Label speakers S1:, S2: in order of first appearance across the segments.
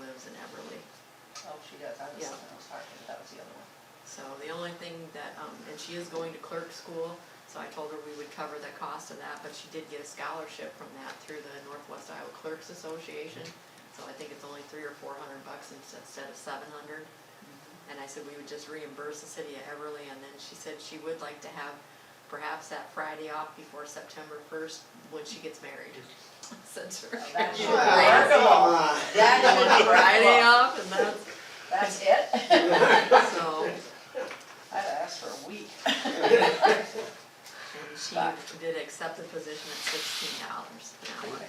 S1: lives in Everly.
S2: Oh, she does, I was,
S1: Yeah.
S2: I was talking, that was the other one.
S1: So the only thing that, um, and she is going to clerk school, so I told her we would cover the cost of that, but she did get a scholarship from that through the Northwest Iowa Clerks Association. So I think it's only three or four hundred bucks instead instead of seven hundred. And I said we would just reimburse the city of Everly, and then she said she would like to have perhaps that Friday off before September first, when she gets married. Since her.
S2: Well, that's
S1: she's
S2: Wow,
S1: like,
S2: That is
S1: Friday
S2: right.
S1: off, and that's,
S2: That's it?
S1: so.
S2: I'd ask for a week.
S1: And she
S2: Back.
S1: did accept the position at sixteen dollars an hour.
S2: Okay.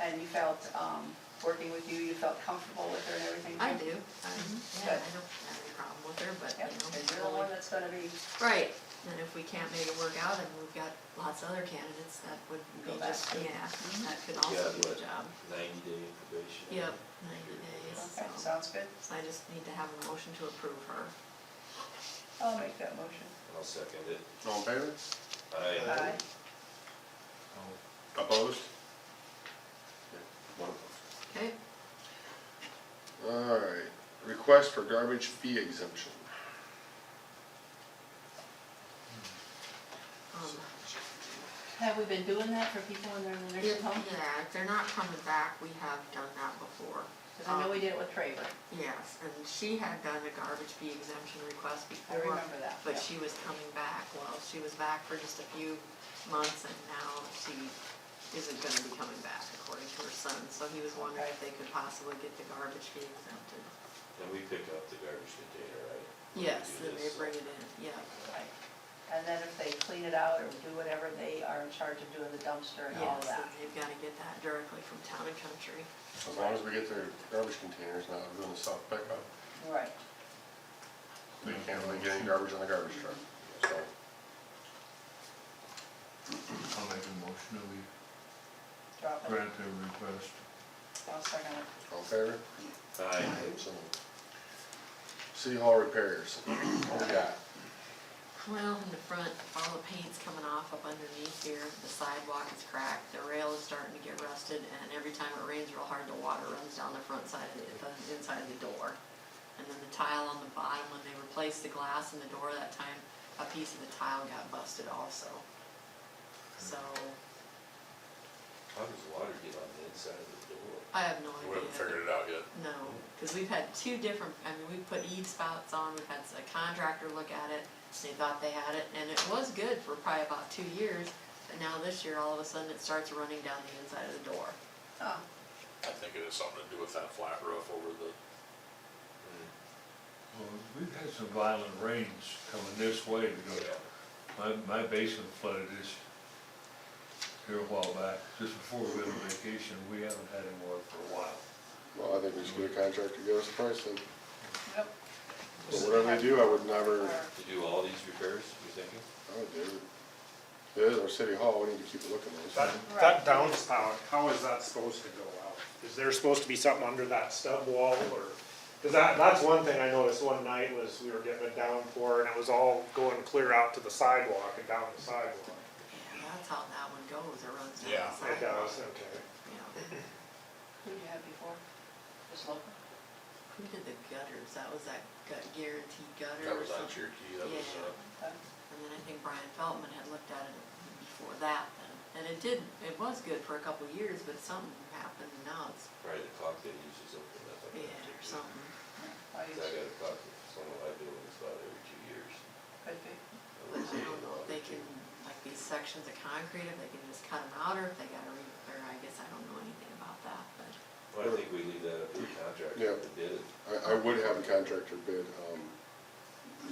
S2: And you felt, um, working with you, you felt comfortable with her and everything?
S1: I
S2: too?
S1: do, I, yeah, I don't have any problem with her, but,
S2: Mm-hmm. Yep, and
S1: you
S2: you're the
S1: know.
S2: one
S1: only-
S2: that's gonna be,
S1: Right, and if we can't make it work out, and we've got lots of other candidates, that would
S2: Go
S1: be
S2: back
S1: just,
S2: to-
S1: yeah,
S2: Mhm.
S1: that could
S3: Yeah,
S1: also be a
S3: but-
S1: job.
S3: Ninety day probation.
S1: Yep, ninety days,
S2: okay,
S1: so,
S2: sounds good.
S1: I just need to have a motion to approve her.
S2: I'll make that motion.
S3: I'll second it.
S4: All in favor?
S3: I,
S2: Aye.
S4: Opposed? One.
S1: Okay,
S4: Alright, request for garbage fee exemption.
S1: um,
S2: Have we been doing that for people in their nursing home?
S1: yeah, if they're not coming back, we have done that before.
S2: Cause I know we did it with Traver,
S1: Yes, and she had done a garbage fee exemption request
S2: I
S1: before.
S2: remember that.
S1: Uh-huh. But
S2: yeah.
S1: she was coming back, well, she was back for just a few months and now she isn't gonna be coming back according to her son. So he was wondering if they could possibly get the garbage fee exempted.
S3: and we pick up the garbage container, right?
S1: Yes,
S3: Do
S1: then they
S3: this.
S1: bring it in, yeah.
S2: Right. And then if they clean it out or do whatever, they are in charge of doing the dumpster and all
S1: Yes,
S2: of
S1: and
S2: that.
S1: they've gotta get that directly from town and country.
S4: As long as we get their garbage containers, not doing the soft pickup.
S2: Right.
S4: They can't really get any garbage on the garbage truck, so.
S5: I'll make a motion that we
S2: Drop it.
S5: grant their request.
S2: I'll second it.
S4: All in favor?
S3: Aye.
S4: So moved. City Hall repairs, what we got?
S1: Well, in the front, all the paint's coming off up underneath here, the sidewalk is cracked, the rail is starting to get rusted, and every time it rains real hard, the water runs down the front side of the, the inside of the door. And then the tile on the bottom, when they replaced the glass in the door that time, a piece of the tile got busted also. So,
S3: How does water get on the inside of the door?
S1: I have no idea.
S6: We haven't figured it out yet.
S1: No, because we've had two different, I mean, we put eave spouts on, we've had a contractor look at it, they thought they had it, and it was good for probably about two years, but now this year, all of a sudden, it starts running down the inside of the door.
S2: Oh,
S6: I think it has something to do with that flat roof over the,
S1: Hmm.
S5: Well, we've had some violent rains coming this way, you know. My, my basement flooded this here a while back, just before we went on vacation, we haven't had any water for a while.
S4: Well, I think we should get a contractor to give us a price then.
S2: yep.
S4: But whatever they do, I would never,
S2: Or-
S3: To do all these repairs, you thinking?
S4: I would do it. It is our city hall, we need to keep a look at
S7: That,
S4: those.
S2: Right.
S7: that downspout, how is that supposed to go out? Is there supposed to be something under that stub wall or? Cause that, that's one thing I noticed one night was we were getting a downpour and it was all going clear out to the sidewalk and down the sidewalk.
S1: And that's how that one goes, it runs down
S6: Yeah,
S1: the sidewalk.
S7: It
S6: it
S7: does, okay.
S1: Yeah.
S2: Who did you have before? Just local?
S1: Who did the gutters, that was that gut- guaranteed gutter
S6: that
S1: or
S6: was on
S1: something?
S6: Cherokee, that was,
S1: Yeah.
S6: uh,
S2: Okay.
S1: And then I think Brian Feldman had looked at it before that then, and it did, it was good for a couple of years, but something happened, and now it's
S3: Probably the clock they use is up for that.
S1: bad or something.
S2: Why you-
S3: Cause I got a clock, that's one of my buildings about every two years.
S2: Could be.
S1: But I don't know if they can, like these sections of concrete, if they can just cut them out, or if they gotta re, or I guess I don't know anything about that, but.
S3: Well, I think we leave that up to the
S4: Yeah.
S3: contractor that did it.
S4: I, I would have a contractor bid, um,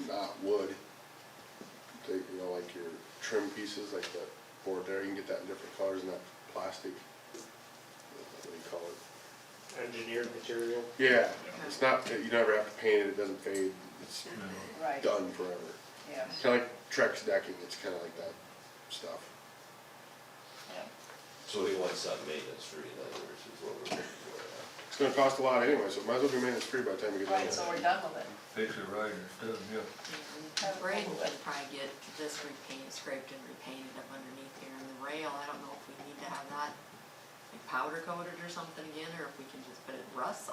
S4: not wood. Take, you know, like your trim pieces, like that board there, you can get that in different colors, not plastic. What do you call it?
S7: Engineered material.
S4: Yeah, it's not, you never have to paint it, it doesn't fade, it's
S5: you know.
S2: Right,
S4: done forever.
S2: yeah,
S4: Kinda like Trex decking, it's kinda like that stuff.
S2: yeah.
S3: So we want something maintenance free, in other words, is what we're looking for. huh?
S4: It's gonna cost a lot anyway, so it might as well be maintenance free by the time we get done.
S2: Right,
S4: with
S2: so we're
S4: it.
S2: done with it.
S5: Fix it right instead of, yeah.
S1: And Braden can probably get this repainted, scraped and repainted up underneath here, and the rail, I don't know if we need to have that like powder coated or something again, or if we can just put it rust